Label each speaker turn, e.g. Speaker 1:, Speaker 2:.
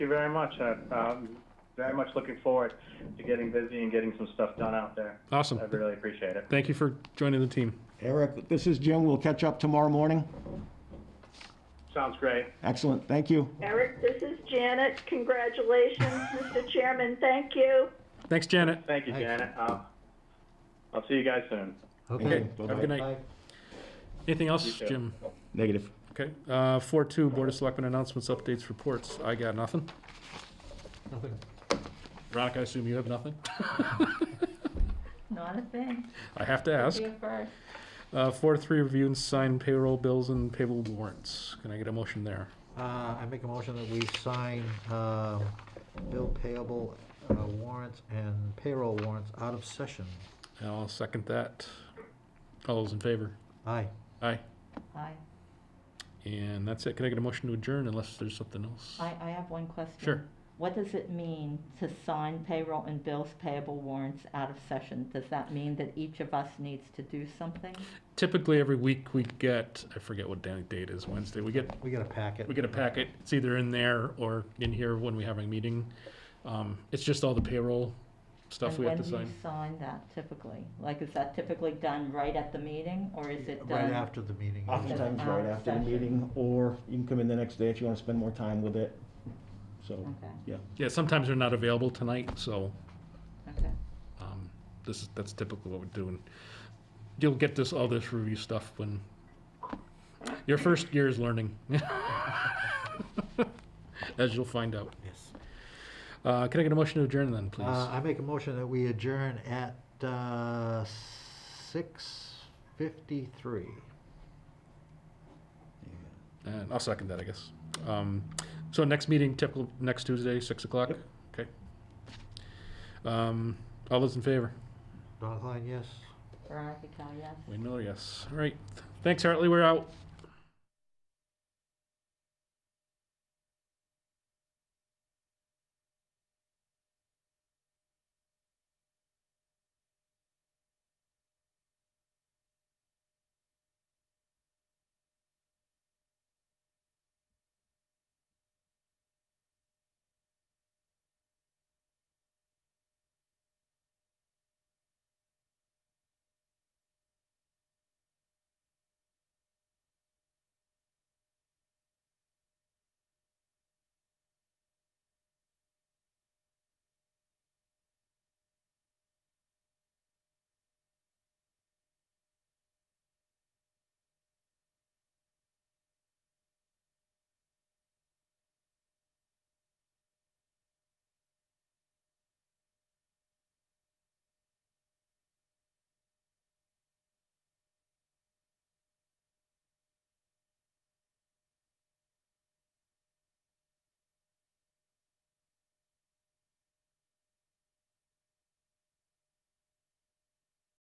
Speaker 1: you very much. I- I'm very much looking forward to getting busy and getting some stuff done out there.
Speaker 2: Awesome.
Speaker 1: I really appreciate it.
Speaker 2: Thank you for joining the team.
Speaker 3: Eric, this is Jim. We'll catch up tomorrow morning.
Speaker 1: Sounds great.
Speaker 3: Excellent. Thank you.
Speaker 4: Eric, this is Janet. Congratulations, Mr. Chairman. Thank you.
Speaker 2: Thanks, Janet.
Speaker 1: Thank you, Janet. I'll, I'll see you guys soon.
Speaker 3: Okay.
Speaker 2: Have a good night. Anything else,
Speaker 1: too.
Speaker 2: Jim?
Speaker 3: Negative.
Speaker 2: Okay, uh, four two, Board of Selectmen announcements, updates, reports. I got nothing.
Speaker 5: Nothing.
Speaker 2: Veronica, I assume you have nothing?
Speaker 6: Not a thing.
Speaker 2: I have to ask.
Speaker 6: Be a first.
Speaker 2: Uh, four three, review and sign payroll bills and payable warrants. Can I get a motion there?
Speaker 5: Uh, I make a motion that we sign, um, bill payable uh, warrants and payroll warrants out of session.
Speaker 2: And I'll second that. All those in favor?
Speaker 5: Aye.
Speaker 2: Aye.
Speaker 6: I,
Speaker 2: And that's it. Can I get a motion to adjourn unless there's something else?
Speaker 6: I, I have one question.
Speaker 2: Sure.
Speaker 6: What does it mean to sign payroll and bills payable warrants out of session? Does that mean that each of us needs to do something?
Speaker 2: Typically, every week we get, I forget what da- date is, Wednesday, we get
Speaker 5: We got a packet.
Speaker 2: we get a packet. It's either in there or in here when we have a meeting. Um, it's just all the payroll stuff we have to
Speaker 6: And when do
Speaker 2: sign.
Speaker 6: you sign that typically? Like, is that typically done right at the meeting, or is it done?
Speaker 5: Right after the meeting.
Speaker 3: Oftentimes right after the meeting, or you can come in the next day if you want to spend more time with it. So,
Speaker 6: Okay,
Speaker 3: yeah.
Speaker 2: Yeah, sometimes they're not available tonight, so,
Speaker 6: okay.
Speaker 2: um, this is, that's typically what we're doing. You'll get this, all this review stuff when, your first year is learning. As you'll find out.
Speaker 5: Yes.
Speaker 2: Uh, can I get a motion to adjourn then, please?
Speaker 5: Uh, I make a motion that we adjourn at, uh, six fifty-three.
Speaker 2: And I'll second that, I guess. Um, so next meeting, typical, next Tuesday, six o'clock? Okay. Um, all those in favor?
Speaker 5: Don Klein, yes?
Speaker 6: Veronica, Cal, yes?
Speaker 2: Wayne Miller, yes. All right. Thanks, Hartley, we're out.